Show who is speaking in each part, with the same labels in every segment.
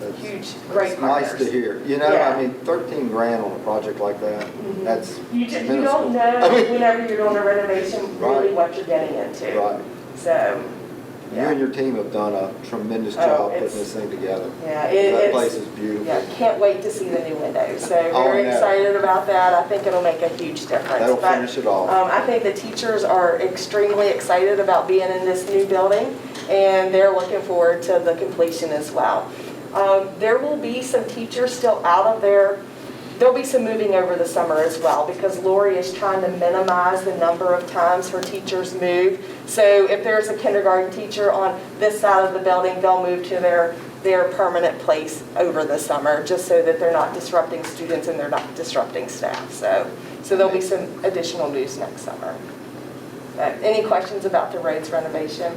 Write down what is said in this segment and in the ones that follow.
Speaker 1: That's-
Speaker 2: huge, great
Speaker 1: it's Nice to
Speaker 2: partners.
Speaker 1: hear, you know, I
Speaker 2: Yeah.
Speaker 1: mean, thirteen grand on a project like that,
Speaker 2: Mhm.
Speaker 1: that's
Speaker 2: You just, you
Speaker 1: minuscule.
Speaker 2: don't
Speaker 1: I
Speaker 2: know
Speaker 1: mean,
Speaker 2: whenever you're doing a renovation, really
Speaker 1: Right.
Speaker 2: what you're getting into.
Speaker 1: Right,
Speaker 2: So,
Speaker 1: you and
Speaker 2: yeah,
Speaker 1: your team have done a tremendous
Speaker 2: Oh,
Speaker 1: job putting
Speaker 2: it's-
Speaker 1: this thing together.
Speaker 2: yeah,
Speaker 1: That
Speaker 2: it-
Speaker 1: place
Speaker 2: it's,
Speaker 1: is beautiful.
Speaker 2: yeah, can't wait to see the new windows. So
Speaker 1: Oh,
Speaker 2: very
Speaker 1: yeah.
Speaker 2: excited about that. I think it'll make a huge difference.
Speaker 1: That'll
Speaker 2: But,
Speaker 1: finish it off.
Speaker 2: Um, I think the teachers are extremely excited about being in this new building, and they're looking forward to the completion as well. Um, there will be some teachers still out of their, there'll be some moving over the summer as well, because Lori is trying to minimize the number of times her teachers move. So if there's a kindergarten teacher on this side of the building, they'll move to their, their permanent place over the summer, just so that they're not disrupting students and they're not disrupting staff, so. So there'll be some additional news next summer. But Any questions about the roads renovation?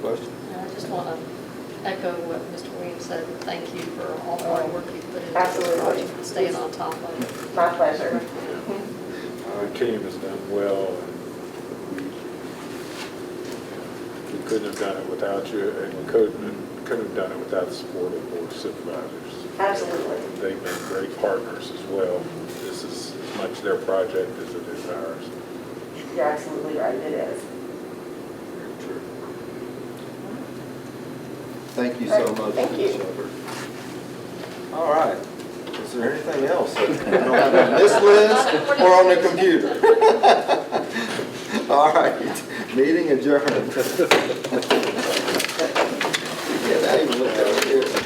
Speaker 1: Question?
Speaker 3: And I just want to echo what Mr. Williams said, and thank you for all the hard work you've put into this
Speaker 2: Absolutely.
Speaker 3: project and staying on top of it.
Speaker 2: My pleasure. Mm-hmm.
Speaker 4: Our team has done well, and we- we couldn't have done it without you, and we couldn't, couldn't have done it without the support of the board of supervisors.
Speaker 2: Absolutely.
Speaker 4: They've been great partners as well. This is as much their project as it is ours.
Speaker 2: You're absolutely right, it is.
Speaker 1: Thank you so
Speaker 2: Right,
Speaker 1: much.
Speaker 2: thank
Speaker 1: Ms.
Speaker 2: you.
Speaker 1: Shepherd. All right, is there anything else that's on this list or on the computer? All right, meeting adjourned. Yeah, that ain't looked over here.